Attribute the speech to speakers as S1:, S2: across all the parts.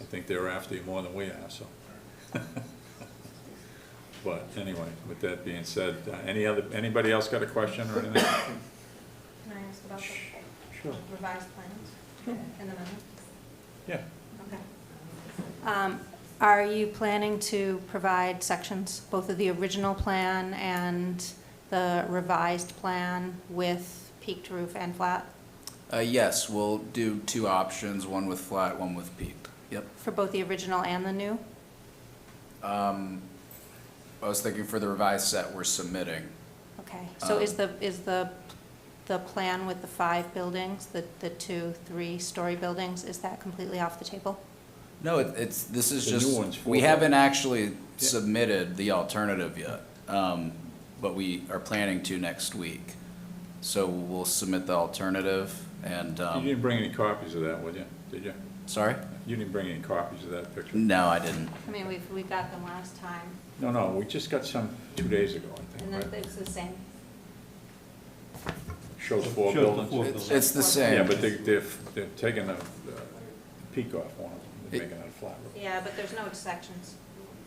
S1: think they're after you more than we are, so. But anyway, with that being said, uh, any other, anybody else got a question or anything?
S2: Can I ask about the
S1: Sure.
S2: revised plans and the amendments?
S1: Yeah,
S2: Okay. Um, Are you planning to provide sections, both of the original plan and the revised plan with peaked roof and flat
S3: Uh, yes, we'll do two options, one with flat, one with peaked. Yep.
S2: for both the original and the new?
S3: Um, I was thinking for the revised set we're submitting.
S2: Okay, so is
S3: Um,
S2: the, is the, the plan with the five buildings, the, the two, three-story buildings, is that completely off the table?
S3: No, it, it's, this is
S1: The new
S3: just,
S1: one's
S3: we
S1: four.
S3: haven't actually submitted the alternative yet. Um, but we are planning to next week. So we'll submit the alternative and,
S1: you
S3: um,
S1: didn't bring any copies of that, would you? Did you?
S3: sorry?
S1: You didn't bring any copies of that picture?
S3: No, I didn't.
S2: I mean, we've, we got them last time,
S1: No, no, we just got some two days ago, I
S2: and
S1: think,
S2: then
S1: right?
S2: it's the same.
S1: Shows four
S4: Shows the four
S1: buildings.
S3: It's, it's the same.
S1: Yeah, but they, they're, they're taking the the peak off one of them, they're
S3: It-
S1: making it a flat roof.
S2: Yeah, but there's no sections.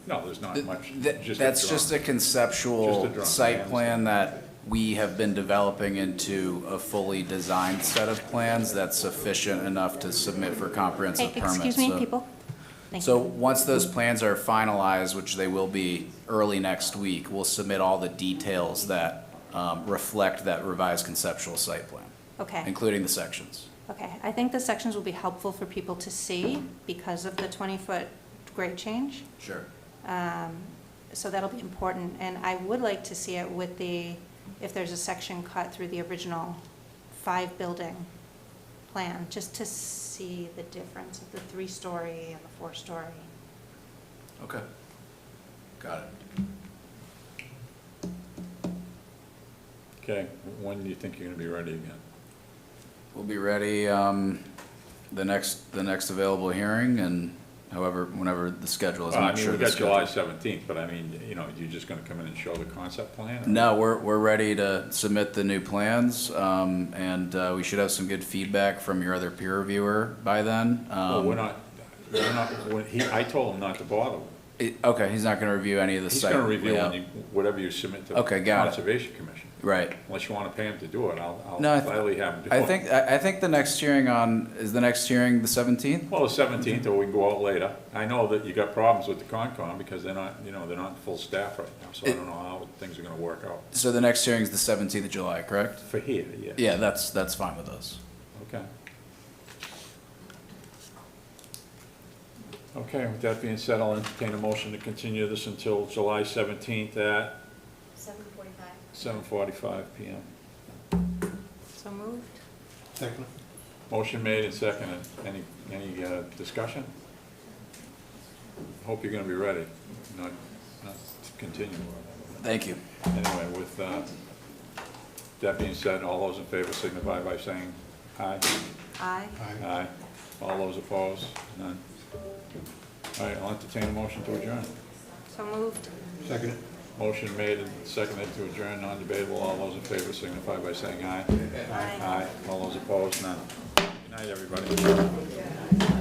S1: No, there's not
S3: Th-
S1: much.
S3: th-
S1: just a
S3: That's
S1: drawing.
S3: just
S1: Just
S3: a
S1: a
S3: conceptual
S1: drawing, I
S3: site
S1: understand.
S3: plan that we have been developing into a fully designed set of plans that's sufficient enough to submit for comprehensive permits.
S2: Excuse me,
S3: So-
S2: people? Thank
S3: So
S2: you.
S3: once those plans are finalized, which they will be early next week, we'll submit all the details that um, reflect that revised conceptual site plan,
S2: Okay,
S3: including the sections.
S2: okay. I think the sections will be helpful for people to see because of the 20-foot grade change.
S3: Sure.
S2: Um, So that'll be important, and I would like to see it with the, if there's a section cut through the original five-building plan, just to see the difference of the three-story and the four-story.
S3: Okay. Got it.
S1: Okay, when do you think you're gonna be ready again?
S3: We'll be ready, um, the next, the next available hearing and however, whenever the schedule is,
S1: Well, Uh, I
S3: I'm not
S1: mean,
S3: sure.
S1: we
S3: the
S1: got July
S3: schedule.
S1: seventeenth, but I mean, you know, you're just gonna come in and show the concept plan? or-
S3: No, we're, we're ready to submit the new plans, um, and, uh, we should have some good feedback from your other peer reviewer by then.
S1: Well,
S3: Um,
S1: we're not, we're not, when he, I told him not to bother. with it.
S3: it- Okay, he's not gonna review any of the
S1: He's
S3: site.
S1: gonna review when
S3: layout.
S1: you- whatever you submit to the
S3: Okay, got it.
S1: Conservation Commission.
S3: Right.
S1: Unless you wanna pay him to do it, I'll, I'll
S3: No, I th-
S1: gladly have him do it.
S3: I think, I, I think the next hearing on, is the next hearing the seventeenth?
S1: Well, the seventeenth, or we can go out later. I know that you got problems with the Concom because they're not, you know, they're not full staff right now, so I
S3: It-
S1: don't know how things are gonna work out.
S3: So the next hearing's the seventeenth of July, correct?
S1: For here, yeah.
S3: Yeah, that's, that's fine with us.
S1: Okay. Okay, with that being said, I'll entertain a motion to continue this until July seventeenth at
S2: Seven forty-five.
S1: seven forty-five PM.
S2: So moved?
S4: Second.
S1: Motion made and seconded. Any, any uh, discussion? Hope you're gonna be ready, not, not to continue.
S3: Thank you.
S1: Anyway, with uh, that being said, all those in favor signify by saying aye.
S2: Aye.
S1: Aye. All those opposed? None. All right, I'll entertain a motion to adjourn.
S2: So moved.
S4: Second.
S1: Motion made and seconded to adjourn, non-debatable. All those in favor signify by saying aye.
S2: Aye.
S1: All those opposed? None. Good night, everybody.